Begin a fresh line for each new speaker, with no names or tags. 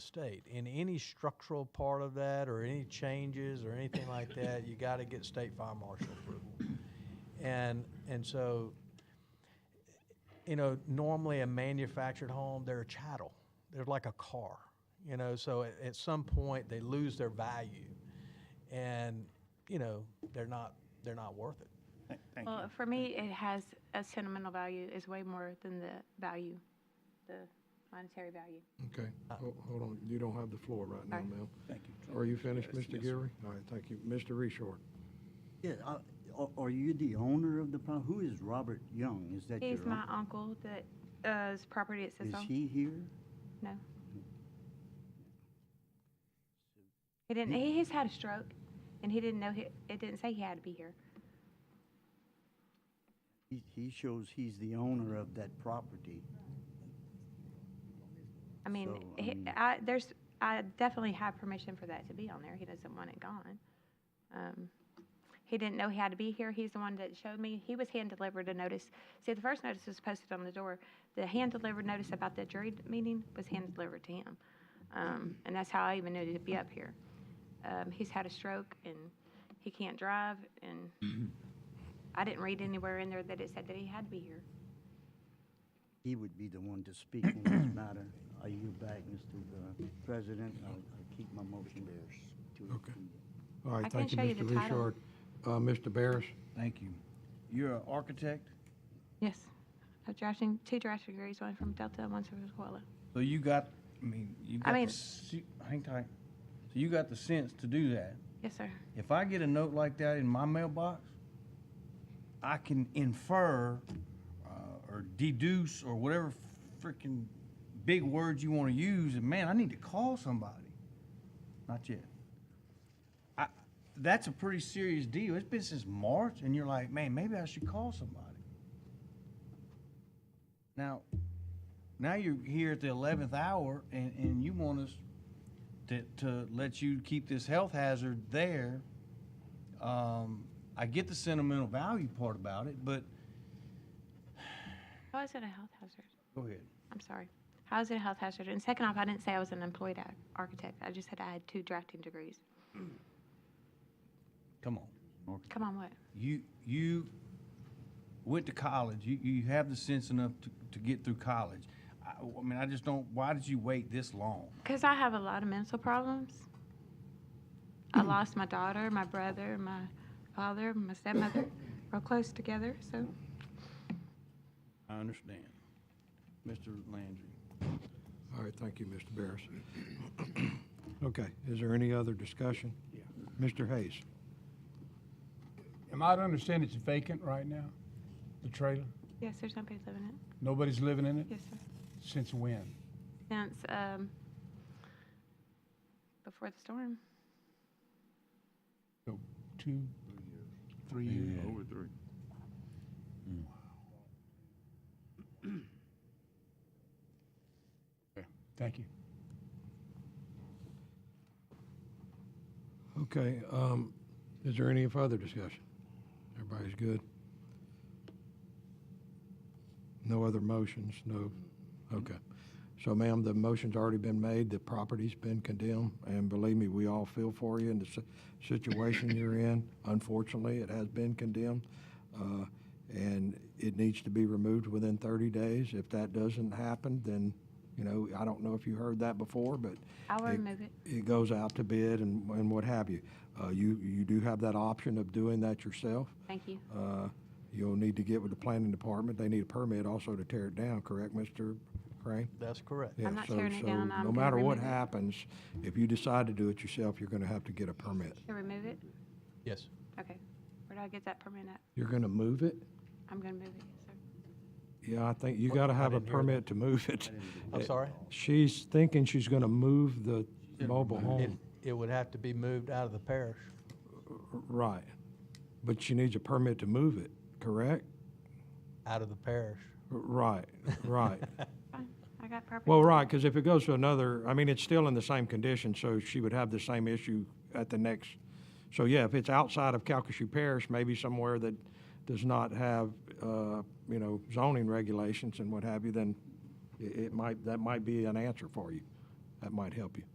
state. In any structural part of that or any changes or anything like that, you got to get state fire marshal approval. And, and so, you know, normally a manufactured home, they're a chattel. They're like a car, you know, so at, at some point they lose their value and, you know, they're not, they're not worth it.
Th- Thank you.
Well, for me, it has a sentimental value. It's way more than the value, the monetary value.
Okay,
Uh,
Ho- hold on, you don't have the floor right now,
Alright.
ma'am.
Thank you.
Are you finished,
Yes,
Mr.
yes, sir.
Geary? All right, thank you. Mr. Reshort?
Yeah, uh, are, are you the owner of the property? Who is Robert Young? Is that your?
He's my
uncle?
uncle that, uh, his property it sits
Is
on.
he here?
No. He didn't, he, he's had a stroke and he didn't know, he- it didn't say he had to be here.
He, he shows he's the owner of that property.
I mean,
So, I
he-
mean-
I, there's, I definitely have permission for that to be on there. He doesn't want it gone. Um, He didn't know he had to be here. He's the one that showed me. He was hand-delivered a notice. See, the first notice was posted on the door. The hand-delivered notice about the jury meeting was hand-delivered to him. Um, And that's how I even knew to be up here. Um, He's had a stroke and he can't drive
Mm-hmm.
and I didn't read anywhere in there that it said that he had to be here.
He would be the one to speak on this matter. I yield back, Mr. uh, President. I'll I'll keep my motion there. to-
Okay. All right,
I
thank you,
can show you
Mr.
the title.
Reshort. Uh, Mr. Barris?
Thank you. You're an architect,
Yes. I've drafting, two drafting degrees, one from Delta and one from Sequoia.
so you got, I mean, you
I
got, the
mean-
se- hang tight. So you got the sense to do that.
Yes, sir.
If I get a note like that in my mailbox, I can infer uh, or deduce or whatever freaking big words you want to use, and man, I need to call somebody. Not yet. I, that's a pretty serious deal. It's been since March, and you're like, man, maybe I should call somebody. Now, now you're here at the 11th hour, and, and you want us to, to let you keep this health hazard there. Um, I get the sentimental value part about it, but
How is it a health hazard?
go ahead.
I'm sorry. How is it a health hazard? And second off, I didn't say I was an employed ar- architect. I just said I had two drafting degrees.
Come on.
Come on, what?
You you went to college. You you have the sense enough to, to get through college. I, I mean, I just don't. Why did you wait this long?
Because I have a lot of mental problems. I lost my daughter, my brother, my father, my stepmother, real close together. So
I understand, Mr. Landry.
All right, thank you, Mr. Barris. Okay, is there any other discussion? Yeah. Mr. Hayes?
Am I to understand it's vacant right now? The trailer?
yes, there's nobody living in it.
Nobody's living in it?
Yes, sir.
Since when?
Since um, before the storm.
So two, three years?
Over three.
Thank you.
Okay, um, is there any further discussion? Everybody's good? No other motions, no, okay. So ma'am, the motion's already been made, the property's been condemned, and believe me, we all feel for you in the si- situation you're in. Unfortunately, it has been condemned, uh, and it needs to be removed within thirty days. If that doesn't happen, then, you know, I don't know if you heard that before, but
I will
it-
remove it.
It goes out to bid and, and what have you. Uh, you, you do have that option of doing that yourself.
Thank you.
Uh, you'll need to get with the planning department. They need a permit also to tear it down, correct, Mr. Crane?
That's correct.
Yeah,
not
so-
tearing it
so
down. I'm
No
gonna
matter what
remove it.
happens, if you decide to do it yourself, you're gonna have to get a permit.
Can I remove it?
Yes.
Okay. Where do I get that permit at?
You're gonna move it?
I'm gonna move it, yes, sir.
Yeah, I think you
What?
gotta
I
have a
didn't hear that.
permit to move it.
I'm
It-
sorry?
She's thinking she's gonna move the mobile
It,
home.
it would have to be moved out of the parish.
Right. But she needs a permit to move it, correct?
Out of the parish.
Right, right.
Fine. I got property.
Well, right, because if it goes to another, I mean, it's still in the same condition, so she would have the same issue at the next. So, yeah, if it's outside of Calcasieu Parish, maybe somewhere that does not have, uh, you know, zoning regulations and what have you, then i- it might, that might be an answer for you. That might help you.